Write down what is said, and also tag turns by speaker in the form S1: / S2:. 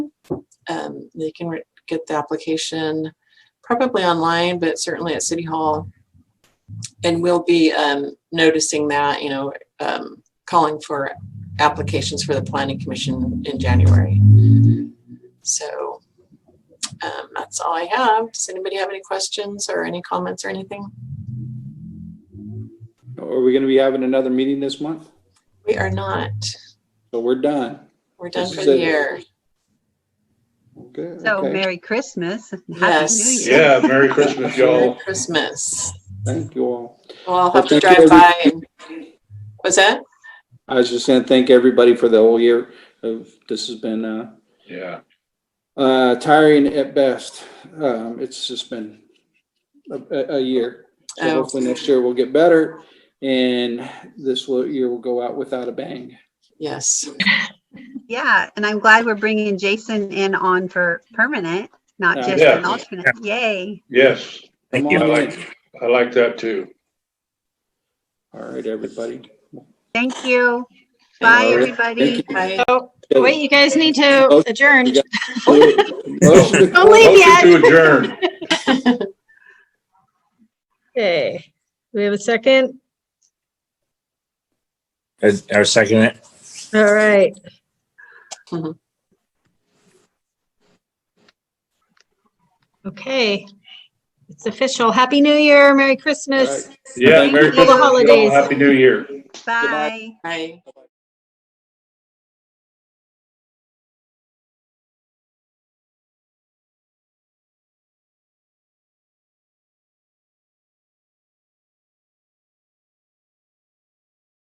S1: Um, they can re- get the application probably online, but certainly at City Hall. And we'll be um, noticing that, you know, um, calling for applications for the Planning Commission in January. So um, that's all I have. Does anybody have any questions or any comments or anything?
S2: Are we going to be having another meeting this month?
S1: We are not.
S2: So we're done.
S1: We're done
S2: This
S1: for
S2: is
S1: the
S2: it.
S1: year.
S2: Good.
S3: So
S2: okay.
S3: Merry Christmas. and Happy New
S1: Yes.
S3: Year.
S4: Yeah, Merry
S1: Merry
S4: Christmas, y'all.
S1: Christmas.
S2: Thank you all.
S1: Well, I'll have to
S2: Thank you,
S1: drive by and, what's that?
S2: I was just going to thank everybody for the whole year of, this has been, uh,
S4: Yeah,
S2: uh, tiring at best. Um, it's just been a, a, a year. So
S1: Oh.
S2: hopefully next year we'll get better and this will, year will go out without a bang.
S1: Yes,
S3: Yeah, and I'm glad we're bringing Jason in on for permanent, not
S2: Yeah.
S3: just an
S4: Yeah.
S3: alternate. Yay.
S4: yes,
S2: Thank
S4: I like, I like that too.
S2: All right, everybody.
S3: Thank you. Bye,
S2: All right.
S3: everybody.
S2: Thank you.
S1: I,
S5: Oh, wait, you guys need to
S2: Both-
S5: adjourn.
S2: Motion
S5: Don't
S4: Motion
S5: leave yet.
S4: to adjourn.
S5: Okay, we have a second.
S6: As our second it.
S5: All right. Mm-hmm.
S1: Mhm.
S5: Okay, it's official. Happy New Year, Merry
S2: All
S5: Christmas.
S2: right.
S4: Yeah, Merry
S5: All the
S4: Christmas, y'all.
S5: holidays.
S4: Happy New Year.
S3: Bye.
S1: I,